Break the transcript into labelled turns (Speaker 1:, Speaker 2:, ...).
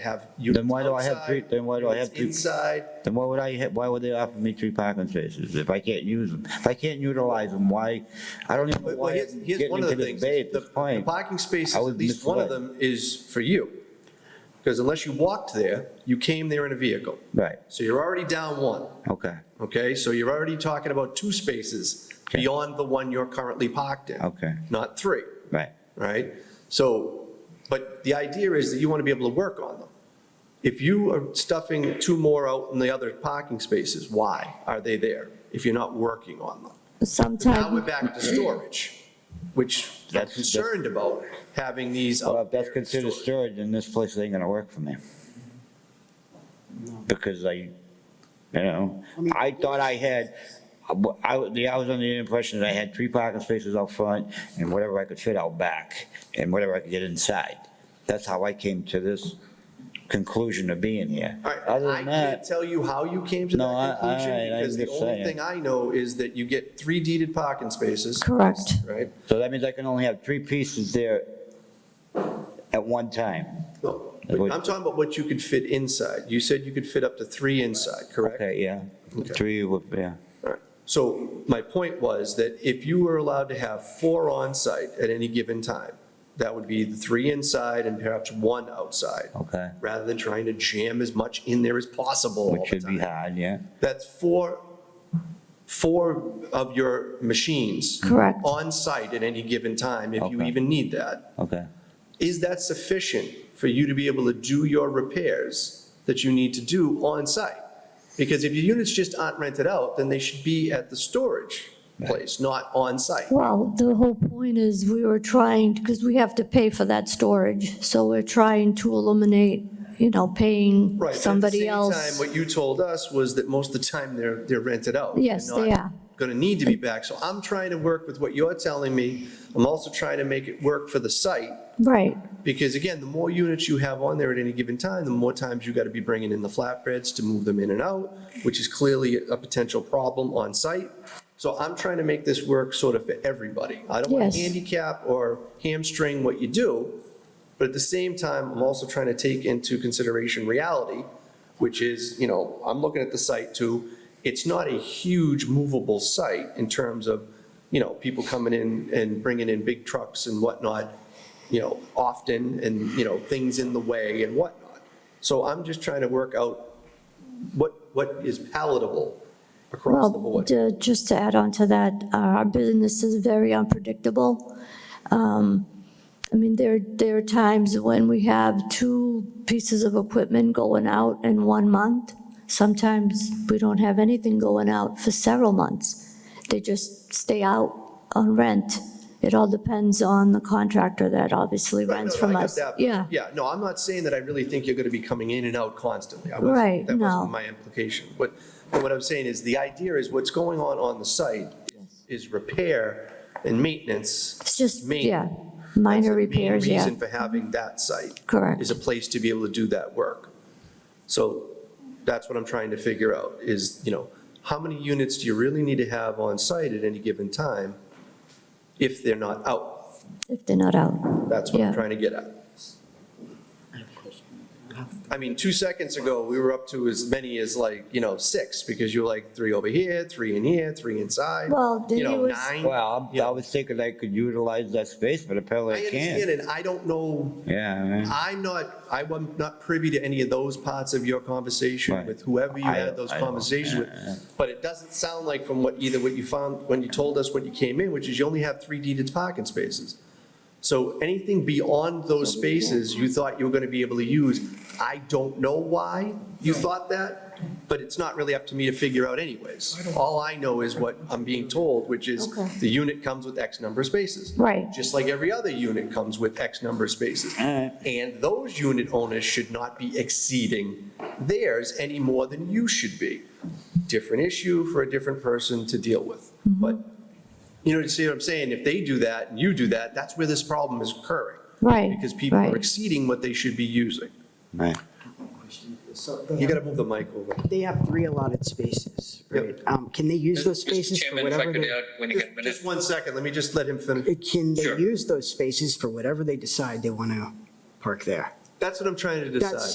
Speaker 1: have.
Speaker 2: Then why do I
Speaker 1: units
Speaker 2: have three-
Speaker 1: outside,
Speaker 2: then why do I have
Speaker 1: units
Speaker 2: three-
Speaker 1: Inside,
Speaker 2: Then why would I, ha- why would they offer me three parking spaces if I can't use them? If I can't utilize them, why, I don't even know
Speaker 1: But- well,
Speaker 2: why
Speaker 1: here's,
Speaker 2: I'm
Speaker 1: here's
Speaker 2: getting
Speaker 1: one of
Speaker 2: into
Speaker 1: the things.
Speaker 2: this debate at
Speaker 1: The
Speaker 2: this
Speaker 1: the
Speaker 2: point.
Speaker 1: parking spaces,
Speaker 2: I
Speaker 1: at
Speaker 2: was
Speaker 1: least one of
Speaker 2: misled.
Speaker 1: them is for you. Because unless you walked there, you came there in a vehicle.
Speaker 2: Right,
Speaker 1: So you're already down one,
Speaker 2: okay,
Speaker 1: okay? So you're already talking about two spaces
Speaker 2: Okay.
Speaker 1: beyond the one you're currently parked in.
Speaker 2: Okay.
Speaker 1: Not three,
Speaker 2: right.
Speaker 1: right? So, but the idea is that you want to be able to work on them. If you are stuffing two more out in the other parking spaces, why are they there if you're not working on them? Now we're
Speaker 3: Sometimes,
Speaker 1: back to storage, which I'm
Speaker 2: That's-
Speaker 1: concerned about, having these.
Speaker 2: Well,
Speaker 1: out
Speaker 2: if that's
Speaker 1: there in
Speaker 2: considered
Speaker 1: storage.
Speaker 2: storage, then this place ain't gonna work for me. Because I, you know, I thought I had, I, was- I was under the impression that I had three parking spaces out front and whatever I could fit out back and whatever I could get inside. That's how I came to this conclusion of being here.
Speaker 1: All right,
Speaker 2: Other
Speaker 1: I
Speaker 2: than
Speaker 1: can't
Speaker 2: that,
Speaker 1: tell you how you came to
Speaker 2: No, I-
Speaker 1: that conclusion,
Speaker 2: alright, I'm
Speaker 1: because the
Speaker 2: just
Speaker 1: only
Speaker 2: saying.
Speaker 1: thing I know is that you get three deeded parking spaces,
Speaker 3: correct.
Speaker 1: right?
Speaker 2: so that means I can only have three pieces there at one time.
Speaker 1: No,
Speaker 2: That
Speaker 1: but
Speaker 2: would-
Speaker 1: I'm talking about what you could fit inside. You said you could fit up to three inside, correct?
Speaker 2: Okay, yeah,
Speaker 1: Okay.
Speaker 2: three would, yeah,
Speaker 1: All right. So my point was that if you were allowed to have four on site at any given time, that would be the three inside and perhaps one outside.
Speaker 2: okay.
Speaker 1: rather than trying to jam as much in there as possible all
Speaker 2: Which
Speaker 1: the
Speaker 2: should be
Speaker 1: time.
Speaker 2: hard, yeah.
Speaker 1: That's four, four of your machines.
Speaker 3: Correct.
Speaker 1: On site at any given time, if you
Speaker 2: Okay.
Speaker 1: even need that.
Speaker 2: Okay.
Speaker 1: Is that sufficient for you to be able to do your repairs that you need to do on site? Because if your units just aren't rented out, then they should be at the storage place, not on site.
Speaker 3: Well, the whole point is we were trying, because we have to pay for that storage, so we're trying to eliminate, you know, paying
Speaker 1: Right. but at the
Speaker 3: somebody
Speaker 1: same
Speaker 3: else.
Speaker 1: time, What you told us was that most of the time they're, they're rented out.
Speaker 3: Yes,
Speaker 1: They're not
Speaker 3: they are.
Speaker 1: Going to need to be back. So I'm trying to work with what you're telling me. I'm also trying to make it work for the site.
Speaker 3: Right,
Speaker 1: Because again, the more units you have on there at any given time, the more times you got to be bringing in the flatbreads to move them in and out, which is clearly a potential problem on site. So I'm trying to make this work sort of for everybody. I don't want to
Speaker 3: Yes.
Speaker 1: handicap or hamstring what you do, but at the same time, I'm also trying to take into consideration reality, which is, you know, I'm looking at the site too. It's not a huge movable site in terms of, you know, people coming in and bringing in big trucks and whatnot you know, often and, you know, things in the way and whatnot. So I'm just trying to work out what, what is palatable across the
Speaker 3: well,
Speaker 1: board.
Speaker 3: d- just to add on to that, uh, our business is very unpredictable. Um, I mean, there, there are times when we have two pieces of equipment going out in one month. Sometimes we don't have anything going out for several months. They just stay out on rent. It all depends on the contractor that obviously
Speaker 1: Right,
Speaker 3: rents
Speaker 1: no, no,
Speaker 3: from
Speaker 1: I get
Speaker 3: us.
Speaker 1: that, but-
Speaker 3: Yeah,
Speaker 1: Yeah, no, I'm not saying that I really think you're going to be coming in and out constantly. I wasn't-
Speaker 3: Right,
Speaker 1: That
Speaker 3: no.
Speaker 1: wasn't my implication. But, but what I'm saying is the idea is what's going on on the site is repair and maintenance.
Speaker 3: it's just,
Speaker 1: Main-
Speaker 3: yeah,
Speaker 1: That's
Speaker 3: minor
Speaker 1: the main
Speaker 3: repairs, yeah,
Speaker 1: Reason for having that site.
Speaker 3: correct.
Speaker 1: is a place to be able to do that work. So that's what I'm trying to figure out, is, you know, how many units do you really need to have on site at any given time if they're not out?
Speaker 3: If they're not out,
Speaker 1: That's what I'm
Speaker 3: Yeah.
Speaker 1: trying to get at. I mean, two seconds ago, we were up to as many as like, you know, six, because you were like, three over here, three in here, three inside.
Speaker 3: Well, then
Speaker 1: You
Speaker 3: he
Speaker 1: know,
Speaker 3: was-
Speaker 1: nine.
Speaker 2: Well, I'm-
Speaker 1: Yeah.
Speaker 2: I was thinking I could utilize that space, but
Speaker 1: I
Speaker 2: apparently I
Speaker 1: understand,
Speaker 2: can't.
Speaker 1: and I don't know
Speaker 2: Yeah, man.
Speaker 1: I'm not, I was not privy to any of those parts of your conversation
Speaker 2: Right.
Speaker 1: with whoever you
Speaker 2: I-
Speaker 1: had those
Speaker 2: I don't-
Speaker 1: conversations
Speaker 2: yeah.
Speaker 1: with. But it doesn't sound like from what, either what you found, when you told us when you came in, which is you only have three deeded parking spaces. So anything beyond those spaces you thought you were going to be able to use, I don't know why you thought that, but it's not really up to me to figure out anyways. All I know is what I'm being told, which is
Speaker 3: Okay.
Speaker 1: the unit comes with X number of spaces
Speaker 3: right.
Speaker 1: just like every other unit comes with X number of spaces.
Speaker 2: Alright.
Speaker 1: And those unit owners should not be exceeding theirs any more than you should be. Different issue for a different person to deal with.
Speaker 3: Mm-hmm.
Speaker 1: But, you know, you see what I'm saying? If they do that and you do that, that's where this problem is occurring.
Speaker 3: Right,
Speaker 1: Because people are
Speaker 3: right.
Speaker 1: exceeding what they should be using.
Speaker 2: Right.
Speaker 4: So
Speaker 1: You
Speaker 4: they
Speaker 1: gotta
Speaker 4: have,
Speaker 1: move the mic over.
Speaker 4: they have three allotted spaces, right? Um, can they use those
Speaker 5: Mr.
Speaker 4: spaces for
Speaker 5: Chairman, if I
Speaker 4: whatever
Speaker 5: could
Speaker 4: they?
Speaker 5: add, when you get a minute.
Speaker 1: Just one second, let me just let him finish.
Speaker 4: Uh, Can they
Speaker 5: Sure.
Speaker 4: use those spaces for whatever they decide they want to park there?
Speaker 1: That's what I'm trying to decide.
Speaker 4: That's-